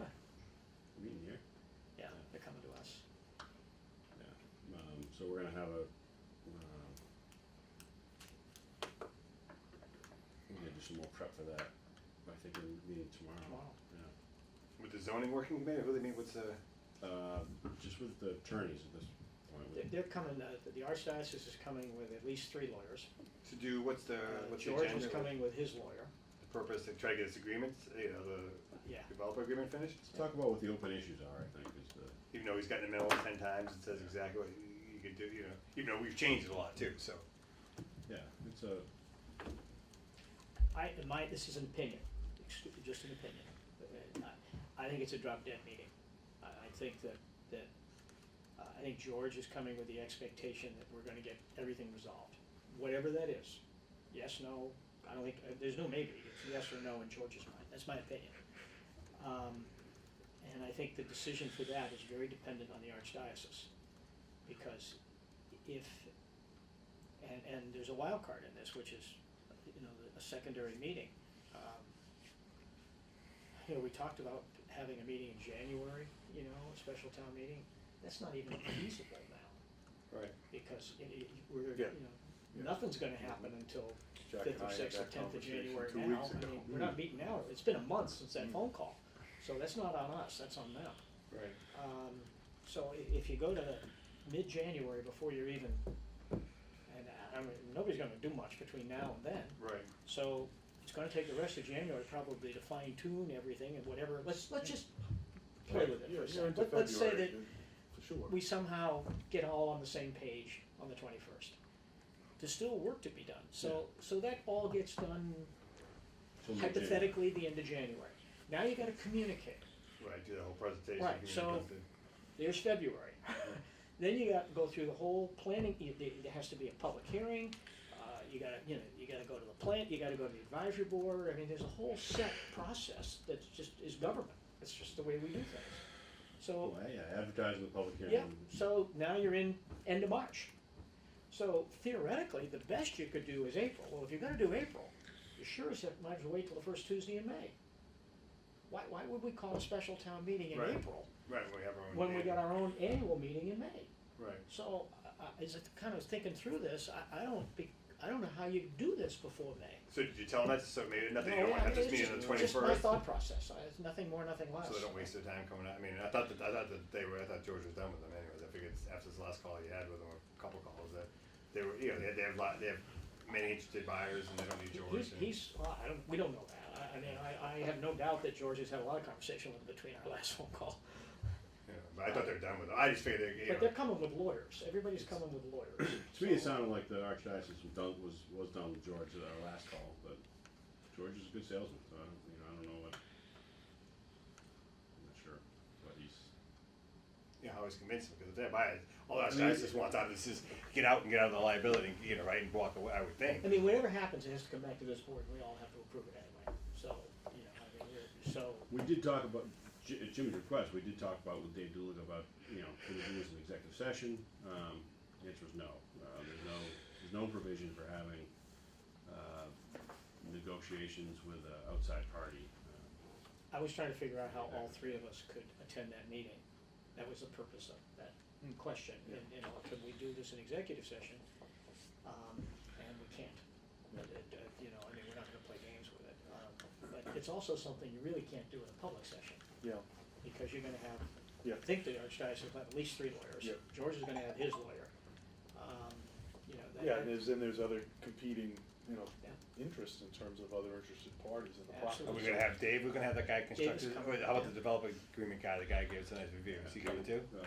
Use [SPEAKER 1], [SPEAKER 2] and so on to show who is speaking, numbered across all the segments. [SPEAKER 1] Um, uh, truck for that. I think we're meeting tomorrow.
[SPEAKER 2] Wow.
[SPEAKER 1] Yeah.
[SPEAKER 3] With the zoning working committee, who they meet, what's the,
[SPEAKER 1] Uh, Just with the attorneys at this point.
[SPEAKER 2] They're-
[SPEAKER 1] with-
[SPEAKER 2] They're coming, uh, the archdiocese is coming with at least three lawyers.
[SPEAKER 3] to do, what's the,
[SPEAKER 2] Uh,
[SPEAKER 3] what's the
[SPEAKER 2] George
[SPEAKER 3] agenda?
[SPEAKER 2] is coming with his lawyer.
[SPEAKER 3] The purpose, to try to get this agreement, uh, you know, the
[SPEAKER 2] Yeah.
[SPEAKER 3] developer agreement finished?
[SPEAKER 1] Let's talk about what the open issues are, I think, is the,
[SPEAKER 3] Even though he's gotten the memo ten times, it says exactly what you could do, you know, even though we've changed it a lot too, so.
[SPEAKER 1] yeah, it's a,
[SPEAKER 2] I, in my, this is an opinion, excuse- just an opinion. Uh, I I think it's a drop dead meeting. I, I think that, that, uh, I think George is coming with the expectation that we're gonna get everything resolved, whatever that is. Yes, no, I don't think, uh, there's no maybe, it's yes or no in George's mind, that's my opinion. Um, and I think the decision for that is very dependent on the archdiocese. Because if, and, and there's a wild card in this, which is, you know, a secondary meeting. Um, You know, we talked about having a meeting in January, you know, a special town meeting. That's not even feasible now,
[SPEAKER 3] Right.
[SPEAKER 2] because it- it- we're, you
[SPEAKER 3] Yeah.
[SPEAKER 2] know, nothing's gonna happen until
[SPEAKER 3] Jack
[SPEAKER 2] fifth
[SPEAKER 3] and I
[SPEAKER 2] or
[SPEAKER 3] had
[SPEAKER 2] sixth or
[SPEAKER 3] that
[SPEAKER 2] tenth of
[SPEAKER 3] conversation
[SPEAKER 2] January
[SPEAKER 3] two
[SPEAKER 2] now.
[SPEAKER 3] weeks
[SPEAKER 2] I
[SPEAKER 3] ago. Mm.
[SPEAKER 2] mean, we're not meeting now, it's been a month since that phone call. So that's not on us, that's on them.
[SPEAKER 3] Right.
[SPEAKER 2] Um, so i- if you go to mid-January before you're even, and uh, I, I mean, nobody's gonna do much between now and then.
[SPEAKER 3] Right.
[SPEAKER 2] So it's gonna take the rest of January probably to fine tune everything and whatever, let's, let's just play with it
[SPEAKER 4] Yeah,
[SPEAKER 2] for a
[SPEAKER 4] you're
[SPEAKER 2] second.
[SPEAKER 4] into
[SPEAKER 2] Let- Let's say that
[SPEAKER 4] February, For sure.
[SPEAKER 2] we somehow get all on the same page on the twenty-first. There's still work to be done, so, so that all gets done
[SPEAKER 1] so many changes.
[SPEAKER 2] hypothetically the end of January. Now you gotta communicate,
[SPEAKER 3] Right, do the whole presentation.
[SPEAKER 2] Right,
[SPEAKER 3] you
[SPEAKER 2] so-
[SPEAKER 3] know,
[SPEAKER 2] there's February. Then you gotta go through the whole planning, you- there there has to be a public hearing, uh, you gotta, you know, you gotta go to the plant, you gotta go to the advisory board, I mean, there's a whole set process that's just, is government, it's just the way we do things. So,
[SPEAKER 1] Well, yeah, advertising the public hearing.
[SPEAKER 2] yeah, so now you're in end of March. So theoretically, the best you could do is April, well, if you're gonna do April, you sure as heck might as well wait till the first Tuesday in May. Why, why would we call a special town meeting in
[SPEAKER 3] Right.
[SPEAKER 2] April
[SPEAKER 3] Right, we have our own.
[SPEAKER 2] when we
[SPEAKER 3] data.
[SPEAKER 2] got our own annual meeting in May?
[SPEAKER 3] Right.
[SPEAKER 2] So, I- I- as I kind of thinking through this, I, I don't be, I don't know how you do this before May.
[SPEAKER 3] So did you tell them that, so maybe nothing, you
[SPEAKER 2] No,
[SPEAKER 3] don't
[SPEAKER 2] I
[SPEAKER 3] wanna have
[SPEAKER 2] mean,
[SPEAKER 3] this
[SPEAKER 2] it's
[SPEAKER 3] meeting on the
[SPEAKER 2] just-
[SPEAKER 3] twenty-first?
[SPEAKER 2] Just my thought process, I- it's nothing more, nothing less.
[SPEAKER 3] So they don't waste their time coming out. I mean, I thought that I thought that they were. I thought George was done with them, anyways. I figured after this last call you had with them, or a couple calls, that they were. You know, they, have- they have lot. They have many interested buyers, and they don't need George.
[SPEAKER 2] He's,
[SPEAKER 3] and,
[SPEAKER 2] he's, well, I don't, we don't know that, I, I mean, I, I have no doubt that George has had a lot of conversation with him between our last phone call.
[SPEAKER 3] you know, but I thought they were done with them. I just figured they. You
[SPEAKER 2] But they're
[SPEAKER 3] know,
[SPEAKER 2] coming with lawyers, everybody's coming with lawyers.
[SPEAKER 1] To me, it
[SPEAKER 2] So-
[SPEAKER 1] sounded like the archdiocese was done, was, was done with George at our last call, but George is a good salesman, so I don't, you know, I don't know what. I'm not sure, but he's,
[SPEAKER 3] you know, I was convinced because if they buy it, all that
[SPEAKER 1] I mean,
[SPEAKER 3] guys just wants out of this is get out and get out of the liability, you know, right, and walk away. I would think.
[SPEAKER 2] I mean, whatever happens, it has to come back to this board, and we all have to approve it anyway, so, you know, I mean, we're, so,
[SPEAKER 1] we did talk about, Ji- at Jimmy's request, we did talk about with Dave Doolittle about, you know, can we do this in executive session? Um, the answer was no, uh, there's no, there's no provision for having, uh, negotiations with an outside party. Uh,
[SPEAKER 2] I was trying to figure out how all three of us could attend that meeting. That was the purpose of that
[SPEAKER 4] Hmm.
[SPEAKER 2] question, and, you know, could we do this in executive session? Um, and we can't. But, uh, uh, you know, I mean, we're not gonna play games with it. Um, But it's also something you really can't do in a public session,
[SPEAKER 4] Yeah,
[SPEAKER 2] because you're gonna have,
[SPEAKER 4] yeah.
[SPEAKER 2] I think the archdiocese will have at least three lawyers.
[SPEAKER 4] Yeah.
[SPEAKER 2] George is gonna have his lawyer. Um, You know, that.
[SPEAKER 4] Yeah, and there's, and there's other competing, you know,
[SPEAKER 2] Yeah.
[SPEAKER 4] interests in terms of other interested parties in the process.
[SPEAKER 3] Are we
[SPEAKER 2] Absolutely.
[SPEAKER 3] gonna have Dave? We're gonna have that guy construct.
[SPEAKER 2] Dave is
[SPEAKER 3] How
[SPEAKER 2] coming,
[SPEAKER 3] about the
[SPEAKER 2] yeah.
[SPEAKER 3] developer agreement guy? The guy who gave us a nice review. Is he coming too?
[SPEAKER 1] Uh,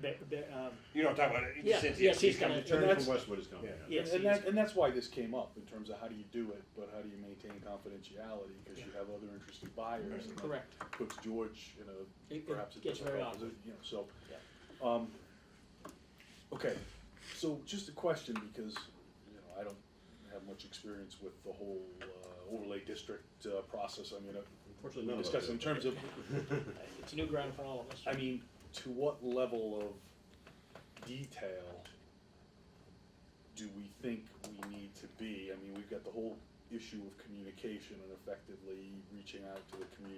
[SPEAKER 2] They're- they're, um,
[SPEAKER 3] You don't talk about it.
[SPEAKER 2] Yeah,
[SPEAKER 3] Since
[SPEAKER 2] yes, he's
[SPEAKER 1] The
[SPEAKER 2] coming. And
[SPEAKER 1] attorney
[SPEAKER 4] that's-
[SPEAKER 1] from Westwood is coming,
[SPEAKER 3] Yeah.
[SPEAKER 1] yeah.
[SPEAKER 2] Yeah.
[SPEAKER 4] And, and that, and that's why this came up, in terms of how do you do it, but how do you maintain confidentiality, because you have other interested buyers. and that
[SPEAKER 2] Correct.
[SPEAKER 4] Puts George in a,
[SPEAKER 2] It- it
[SPEAKER 4] perhaps a
[SPEAKER 2] gets very
[SPEAKER 4] difficult
[SPEAKER 2] awkward.
[SPEAKER 4] position, you know, so.
[SPEAKER 2] Yeah.
[SPEAKER 4] Um, okay, so just a question, because, you know, I don't have much experience with the whole uh, overlay district uh, process, I mean, uh,
[SPEAKER 1] Unfortunately,
[SPEAKER 4] we
[SPEAKER 1] none of us
[SPEAKER 4] discussed
[SPEAKER 1] do.
[SPEAKER 4] in terms of,
[SPEAKER 2] it's new ground for all of us.
[SPEAKER 4] I mean, to what level of detail do we think we need to be? I mean, we've got the whole issue of communication and effectively reaching out to the community.